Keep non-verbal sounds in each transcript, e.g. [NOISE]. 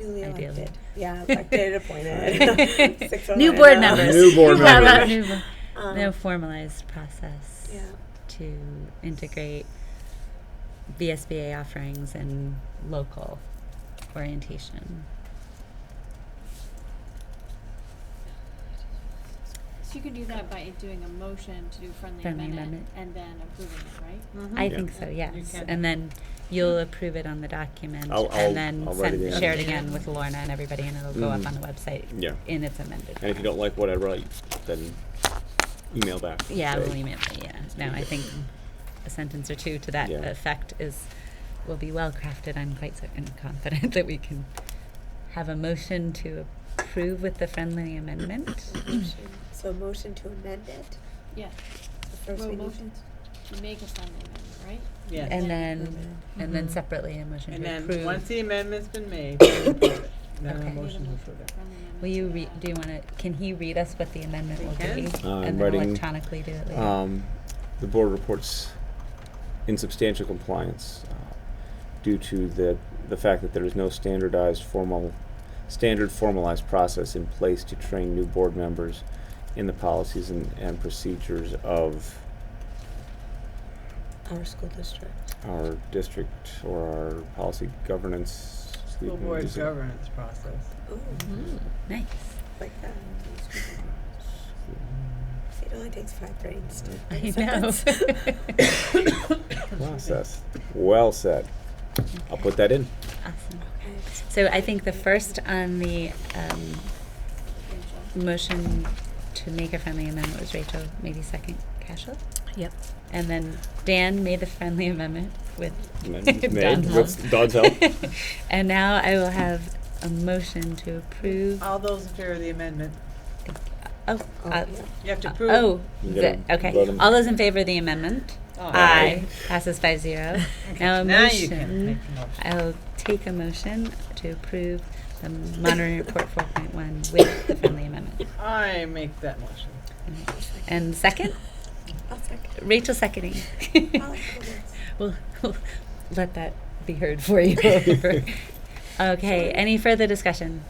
Newly Ideally. elected. [LAUGHS] Yeah, elected, appointed. [LAUGHS] Six of New them, board yeah. members. [LAUGHS] New board We've got members. a new bo- Um, No formalized process Yeah. to integrate VSBA offerings and local orientation. So you could do that by doing a motion to do friendly Friendly amendment and then approving it, right? I Yeah. think so, Yeah. You yes. can. And then you'll approve it on the document I'll- I'll- and then I'll write it send, in. share it again with Lorna and everybody and it'll go up Mhm. on the website Yeah. in its amended And if you form. don't like what I write, then email back. and Yeah, say, we'll email it, yeah. No, I think a sentence or two to that Yeah. effect is, will be well crafted, I'm quite certain, confident [LAUGHS] that we can have a motion to approve with the friendly amendment. [LAUGHS] So motion to amend it. Yeah. So first Well, we need motion to make a friendly amendment, right? Yes. And to then, amend and then separately a motion Mm-hmm. And to then, once approve. the amendment's been made, [COUGHS] then we approve it. then Okay. a motion to approve it. Friendly amendment Will you to re, that. do you wanna, can he read us what the amendment He will can. be? Uh, I'm And then writing, electronically do it later. Um, the board reports insubstantial compliance uh, due to the, the fact that there is no standardized formal, standard formalized process in place to train new board members in the policies and, and procedures of Our school district. our district or our policy governance. School board governance process. Ooh, Oh, Nice. Mhm. like that. It only takes five brains to. write I a know. sentence. [LAUGHS] Process. Well said. I'll put that in. Awesome. Okay. So I think the first on the, um, Mm. Rachel. Motion to make a friendly amendment was Rachel, maybe second, Cashel? Yep. And then Dan made the friendly amendment with Amendment made [LAUGHS] Don's with help. Don's help. [LAUGHS] And now I will have a motion to approve. All those in favor of the amendment, Oh, Oh, uh, yeah. you have to uh, approve. oh, You the- gotta vote okay. 'em. All those in favor of the amendment? Aye. Passes five [LAUGHS] zero. Now a Now you can motion, make the motion. I'll take a motion to approve the monitoring report four point one with the friendly [LAUGHS] amendment. I make that motion. And second, I'll second. Rachel [LAUGHS] seconding. I'll second. We'll, we'll let that be heard for [LAUGHS] you. okay, any further discussion?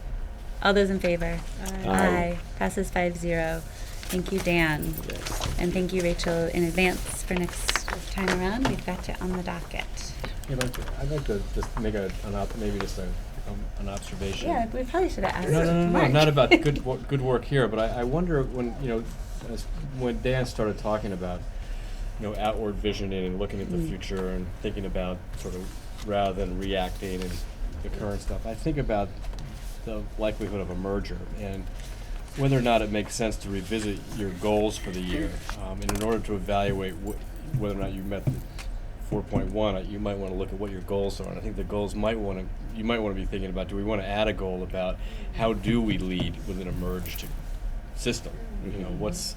All those in favor? Aye. Uh, Passes five zero. Thank you, Dan. Yes. And thank you, Rachel, in advance for next time around. We've got you on the docket. I'd like to, I'd like to just make a, an ob- maybe just a, um, an observation. Yeah, we probably should have asked. No, no, no, no, Mark. not about [LAUGHS] good, wo- good work here, but I, I wonder when, you know, as, when Dan started talking about, you know, outward visioning and looking at the Mm. future and thinking about sort of rather than reacting and the current stuff, I think about the likelihood of a merger and whether or not it makes sense to revisit your goals for the year. Um, and in order to evaluate wh- whether or not you met the 4.1, uh, you might want to look at what your goals are. And I think the goals might want to, you might want to be thinking about, do we want to add a goal about how do we lead within a merged system? You know, Mhm. what's,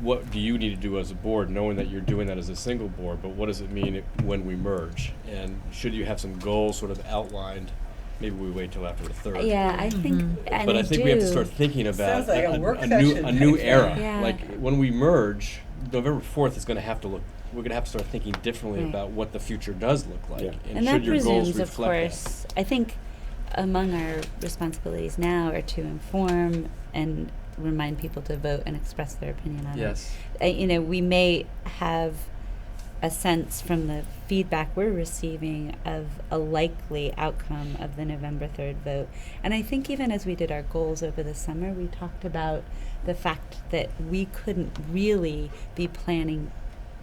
what do you need to do as a board, knowing that you're doing that as a single board, but what does it mean if- when we merge? And should you have some goals sort of outlined? Maybe we wait till after the third. Yeah, I think, and But I think we have to do. start thinking about Sounds like a a, work a new session a new type era. thing. Yeah. Like when we merge, November fourth is going to have to look. We're going to have to start thinking differently Right. about what the future does look like, Yeah. and, And should that your goals presumes, of reflect that? course, I think among our responsibilities now are to inform and remind people to vote and express their opinion on Yes. it. Uh, you know, we may have a sense from the feedback we're receiving of a likely outcome of the November 3rd vote. And I think even as we did our goals over the summer, we talked about the fact that we couldn't really be planning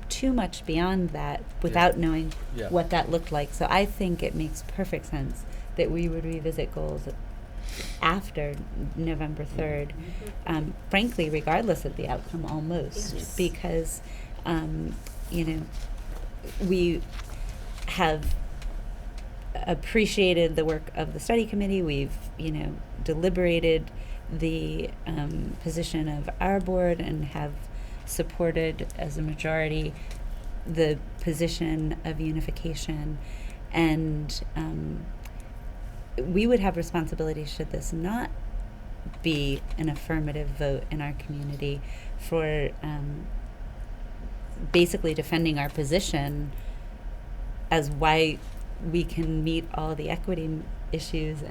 too much beyond that without knowing Yeah. what that looked like. So I think it makes perfect sense that we would revisit goals after November 3rd, um, frankly, regardless of the outcome almost, Yes. because, um, you know, we have appreciated the work of the study committee. We've, you know, deliberated the um, position of our board and have supported as a majority the position of unification. And um, we would have responsibility should this not be an affirmative vote in our community for um, basically defending our position as why we can meet all the equity m- issues